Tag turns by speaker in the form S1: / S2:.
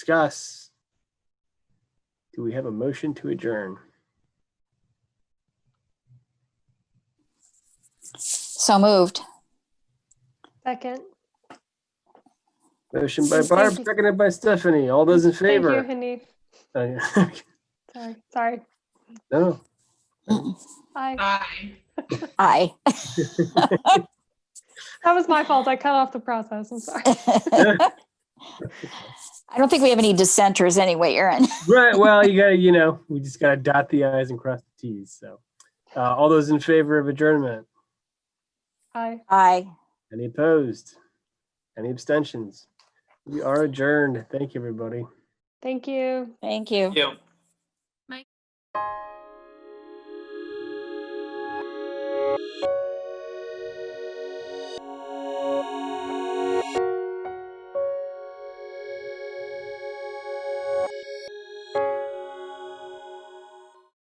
S1: discuss. Do we have a motion to adjourn?
S2: So moved.
S3: Second.
S1: Motion by
S3: Thank
S1: Barb,
S3: you.
S1: seconded by Stephanie. All those in
S3: Thank you,
S1: favor?
S3: Hanif.
S1: Oh, yeah.
S3: Sorry, sorry.
S1: No,
S3: I,
S4: Aye.
S2: Aye.
S3: that was my fault. I cut off the process. I'm sorry.
S2: I don't think we have any dissenters anyway, Erin.
S1: right, well, you gotta, you know, we just gotta dot the i's and cross the t's, so. Uh, all those in favor of adjournment?
S3: Aye.
S2: Aye.
S1: Any opposed? Any abstentions? We are adjourned. Thank you, everybody.
S3: Thank you.
S2: Thank you.
S4: Yeah.